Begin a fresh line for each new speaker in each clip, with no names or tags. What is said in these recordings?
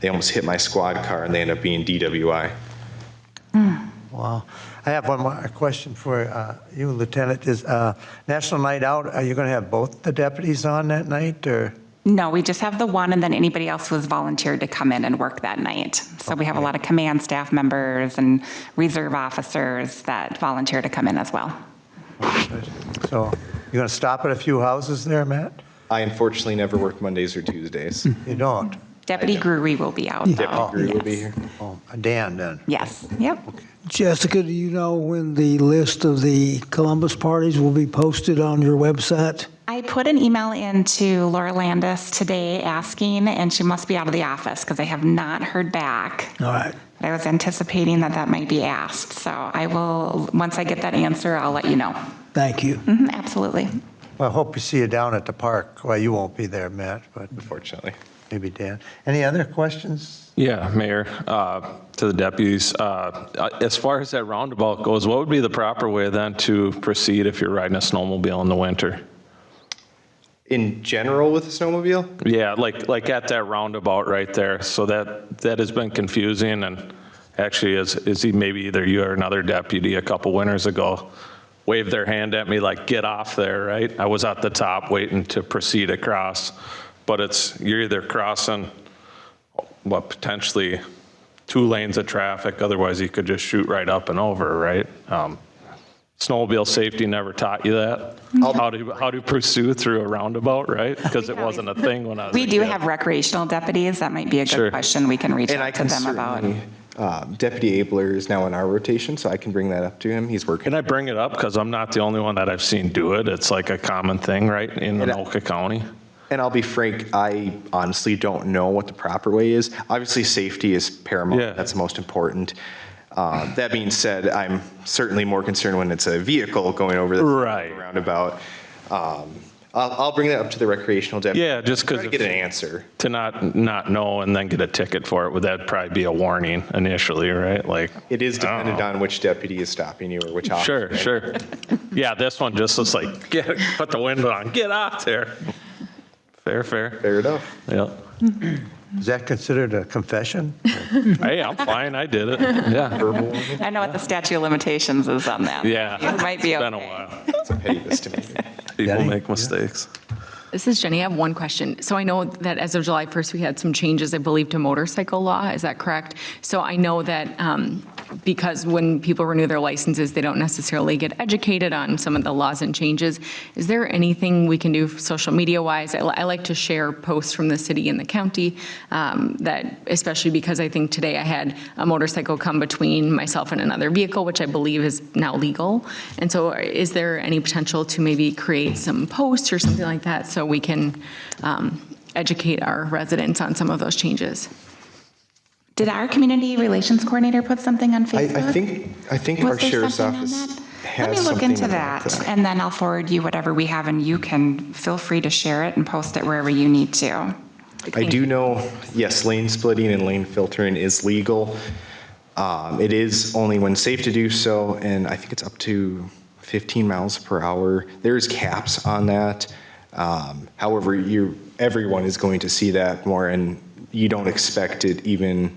They almost hit my squad car and they ended up being DWI.
Wow. I have one more question for uh, you, Lieutenant. Is uh, National Night Out, are you going to have both the deputies on that night, or?
No, we just have the one, and then anybody else was volunteered to come in and work that night. So we have a lot of command staff members and reserve officers that volunteer to come in as well.
So you're going to stop at a few houses there, Matt?
I unfortunately never work Mondays or
Hmm.
Tuesdays.
You don't?
Deputy Gruery will be out, though.
Deputy Greer will be
Yes.
here.
Oh, Dan, then.
Yes, yep.
Jessica, do you know when the list of the Columbus parties will be posted on your website?
I put an email in to Laura Landis today asking, and she must be out of the office because I have not heard back.
All right.
But I was anticipating that that might be asked, so I will, once I get that answer, I'll let you know.
Thank you.
Mhm, Absolutely.
Well, I hope we see you down at the park. Well, you won't be there, Matt, but
Unfortunately.
maybe Dan. Any other questions?
Yeah, Mayor, uh, to the deputies, uh, uh, as far as that roundabout goes, what would be the proper way then to proceed if you're riding a snowmobile in the winter?
In general with a snowmobile,
Yeah, like, like at that roundabout right there, so that, that has been confusing, and actually is, is he maybe either you or another deputy a couple winters ago waved their hand at me like, get off there, right? I was at the top waiting to proceed across, but it's, you're either crossing, what, potentially two lanes of traffic, otherwise you could just shoot right up and over, right? Um, Snowmobile safety never taught you that, how to, how to pursue through a roundabout, right? Because it wasn't a thing when I was a
We do
kid.
have recreational deputies. That might be a good
Sure.
question. We can reach
and I
out to
can
them about.
certainly, uh, Deputy Abler is now in our rotation, so I can bring that up to him. He's working.
And I bring it up because I'm not the only one that I've seen do it. It's like a common thing, right, in
And I-
Anoka County?
And I'll be frank, I honestly don't know what the proper way is. Obviously, safety is paramount.
Yeah.
That's most important. Uh, that being said, I'm certainly more concerned when it's a vehicle going over the
Right.
roundabout. Um, I'll, I'll bring that up to the recreational deputy.
Yeah, just
Try
because
to get an answer.
to not, not know and then get a ticket for it, would that probably be a warning initially, right? Like,
It is
I don't
dependent
know.
on which deputy is stopping you or which officer.
Oh. Sure, sure. Yeah, this one just looks like, get, put the window on, get out there. Fair, fair.
Fair enough.
Yeah.
Is that considered a confession?
Hey, I'm fine, I did it. Yeah,
I know what the statute of limitations is on that.
yeah.
It might be
It's Been a
okay.
while.
It's a petty misdemeanor.
People
Daddy?
make mistakes.
This is Jenny. I have one question. So I know that as of July 1st, we had some changes, I believe, to motorcycle law. Is that correct? So I know that um, because when people renew their licenses, they don't necessarily get educated on some of the laws and changes. Is there anything we can do social media-wise? I li- I like to share posts from the city and the county um, that, especially because I think today I had a motorcycle come between myself and another vehicle, which I believe is now legal. And so is there any potential to maybe create some posts or something like that so we can um, educate our residents on some of those changes?
Did our community relations coordinator put something on
I,
Facebook?
I think, I think
Was
our
there
sheriff's
something on
office
that?
has
Let me look
something
into
about
that, and then I'll forward you whatever we have, and you can feel free to share it and post it wherever you need to.
I do know, yes, lane splitting and lane filtering is legal. Um, It is only when safe to do so, and I think it's up to 15 miles per hour. There's caps on that. Um, However, you, everyone is going to see that more, and you don't expect it even,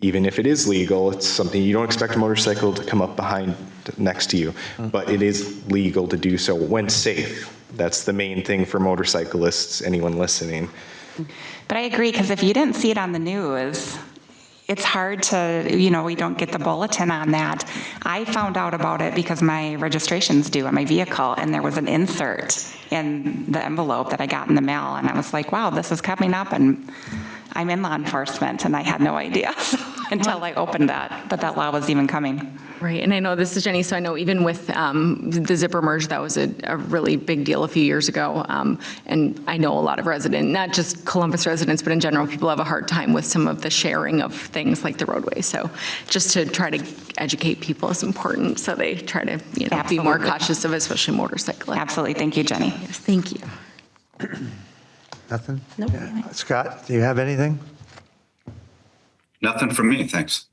even if it is legal, it's something, you don't expect a motorcycle to come up behind, next to you, but it is legal to do so when safe. That's the main thing for motorcyclists, anyone listening.
But I agree, because if you didn't see it on the news, it's hard to, you know, we don't get the bulletin on that. I found out about it because my registration's due on my vehicle, and there was an insert in the envelope that I got in the mail, and I was like, wow, this is coming up, and I'm in law enforcement, and I had no idea until I opened that, that that law was even coming.
Right, and I know, this is Jenny, so I know even with um, the zipper merge, that was a a really big deal a few years ago. Um, And I know a lot of resident, not just Columbus residents, but in general, people have a hard time with some of the sharing of things like the roadway. So just to try to educate people is important, so they try to, you know, be more
Absolutely.
cautious of especially motorcycling.
Absolutely, thank you, Jenny.
Thank you.
Nothing? Nope. Scott, do you have anything?
Nothing from me, thanks.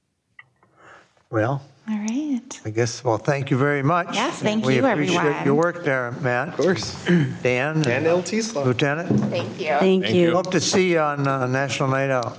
Well,
All right.
I guess, well, thank you very much.
Yes, thank
We
you,
appreciate
everyone.
your work there, Matt. Of
course.
Dan,
And LT slot.
Lieutenant,
Thank you.
hope to see you on uh, National Night Out.